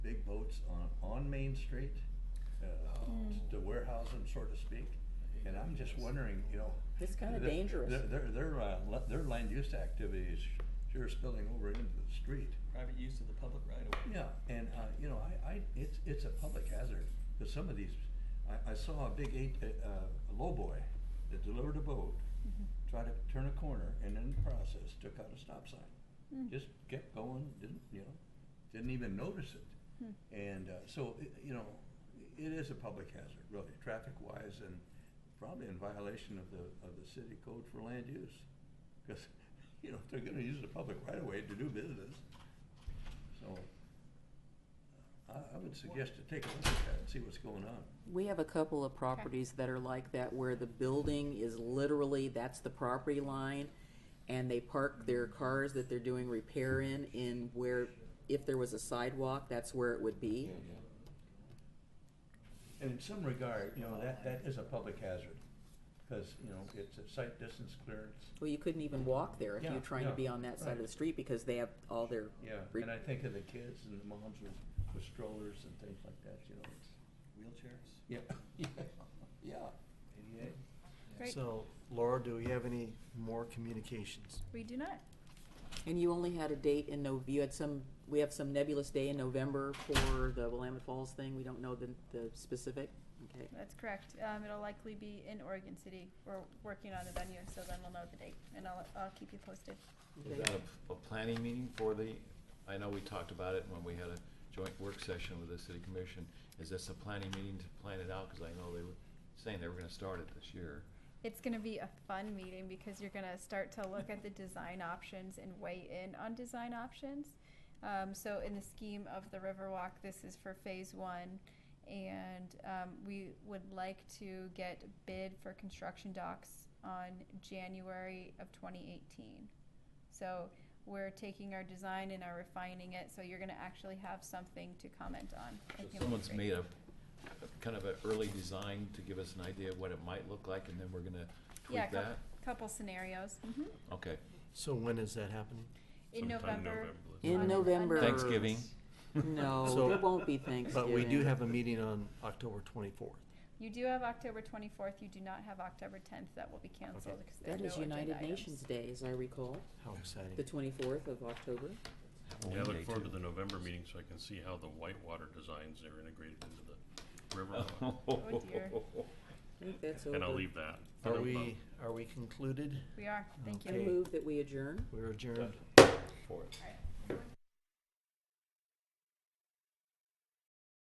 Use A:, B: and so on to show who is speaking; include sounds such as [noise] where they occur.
A: down Main Street, uh,
B: Hmm.
A: to warehouse them, so to speak. And I'm just wondering, you know.
B: It's kinda
A: their-
B: dangerous.
A: Their, their, their, uh, la- their land use activities sure spilling over into the street.
C: private use of the public right of way.
A: Yeah, and, uh, you know, I, I, it's, it's a public hazard, cause some of these, I, I saw a big eight, uh, a lowboy that delivered a boat,
D: Mm-hmm.
A: tried to turn a corner, and in the process, took out a stop sign. Just kept going, didn't, you know, didn't even notice it. And, uh, so, it- you know, it is a public hazard, really, traffic-wise, and probably in violation of the, of the city code for land use. Cause, [laughs] you know, if they're gonna use the public right of way to do business, so, I, I would suggest to take a look at that and see what's going on.
B: We have a couple of properties that are like that where the building is literally, that's the property line. And they park their cars that they're doing repair in, in where, if there was a sidewalk, that's where it would be.
A: And in some regard, you know, that, that is a public hazard, because, you know, it's a site distance clearance.
B: Well, you couldn't even walk there if
A: Yeah,
B: you're trying to
A: yeah,
B: be on that side of
A: right.
B: the street because they have all their.
A: Yeah,
B: re-
A: and I think of the kids and the moms with, with strollers and things like that, you know, it's,
C: Wheelchairs?
A: yeah, [laughs] yeah, yeah.
D: Great.
E: So Laura, do we have any more communications?
D: We do not.
B: And you only had a date in Nov, you had some, we have some nebulous day in November for the Willamette Falls thing. We don't know the, the specific, okay?
D: That's correct. Um, it'll likely be in Oregon City. We're working on a venue, so then we'll know the date, and I'll, I'll keep you posted.
F: Is
B: Okay.
F: that a, a planning meeting for the, I know we talked about it when we had a joint work session with the city commission. Is this a planning meeting to plan it out? Cause I know they were saying they were gonna start it this year.
D: It's gonna be a fun meeting because you're gonna start to look at the design options and weigh in on design options. Um, so in the scheme of the Riverwalk, this is for phase one. And, um, we would like to get bid for construction docs on January of twenty eighteen. So we're taking our design and are refining it, so you're gonna actually have something to comment on. I
F: So
D: think it'll be
F: Someone's
D: great.
F: made a, a kind of an early design to give us an idea of what it might look like and then we're gonna
D: Yeah,
F: tweak
D: a couple,
F: that?
D: couple scenarios, mhm.
F: Okay.
E: So when is that happening?
D: In November.
B: In
D: on- on
B: November.
F: Thanksgiving.
B: No,
E: So-
B: there won't be Thanksgiving.
E: But we do have a meeting on October twenty-fourth.
D: You do have October twenty-fourth, you do not have October tenth, that will be canceled because there are
B: That
D: no
B: is
D: agenda
B: United
D: items.
B: Nations Day, as I recall,
E: How exciting.
B: the twenty-fourth of October.
G: Yeah, I look forward to
F: Halloween [laughs]
G: the November meeting so I can see how the whitewater designs are integrated into
E: [laughs]
G: the river.
F: day, too.
D: Oh, dear.
B: I think that's over.
G: And I'll leave that. for
E: Are
G: the-
E: we, are we concluded?
D: We are, thank you.
B: And
E: Okay.
B: move that we adjourn.
F: [laughs]
E: We're adjourned.
F: For it.
D: All right.